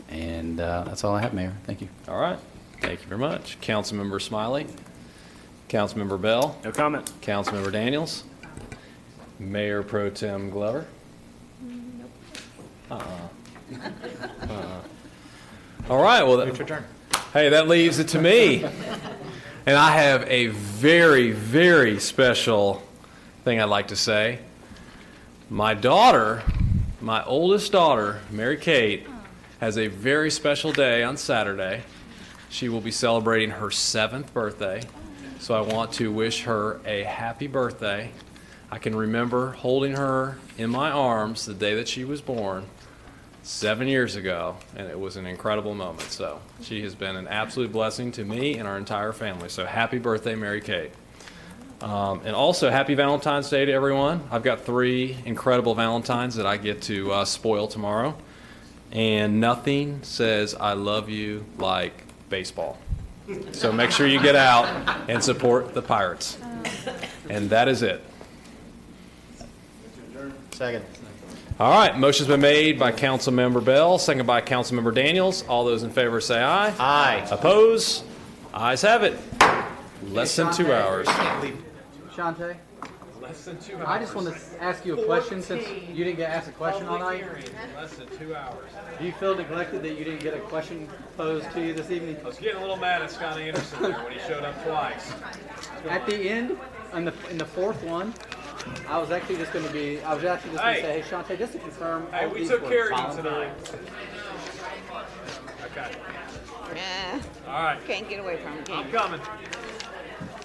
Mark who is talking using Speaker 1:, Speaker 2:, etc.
Speaker 1: And uh, that's all I have, Mayor. Thank you.
Speaker 2: All right. Thank you very much. Councilmember Smiley. Councilmember Bell.
Speaker 3: No comment.
Speaker 2: Councilmember Daniels. Mayor Pro Tem Glover. Uh-uh. Uh-uh. All right, well. that- Hey, that leaves it to me. And I have a very, very special thing I'd like to say. My daughter, my oldest daughter, Mary Kate, has a very special day on Saturday. She will be celebrating her seventh birthday, so I want to wish her a happy birthday. I can remember holding her in my arms the day that she was born seven years ago, and it was an incredible moment. So she has been an absolute blessing to me and our entire family. So happy birthday, Mary Kate. Um, and also, happy Valentine's Day to everyone. I've got three incredible Valentines that I get to uh, spoil tomorrow. And nothing says I love you like baseball. So make sure you get out and support the Pirates. And that is it.
Speaker 1: Second.
Speaker 2: All right, motion's been made by Councilmember Bell, seconded by Councilmember Daniels. All those in favor say aye.
Speaker 1: Aye.
Speaker 2: Oppose? Ayes have it. Less than two hours.
Speaker 4: Shante? I just want to ask you a question since you didn't get asked a question all night.
Speaker 5: less than two hours.
Speaker 4: Do you feel neglected that you didn't get a question posed to you this evening?
Speaker 5: I was getting a little mad at Scott Anderson there when he showed up twice.
Speaker 4: At the end, on the, in the fourth one, I was actually just going to be, I was actually just going to
Speaker 5: Hey.
Speaker 4: say, hey, Shante, just to confirm.
Speaker 5: Hey,
Speaker 4: all
Speaker 5: we
Speaker 4: these
Speaker 5: took
Speaker 4: were
Speaker 5: care of
Speaker 4: fine."
Speaker 5: you tonight. Okay.
Speaker 6: Eh,
Speaker 5: All right.
Speaker 6: Can't get away from it, can
Speaker 5: I'm
Speaker 6: you?
Speaker 5: coming.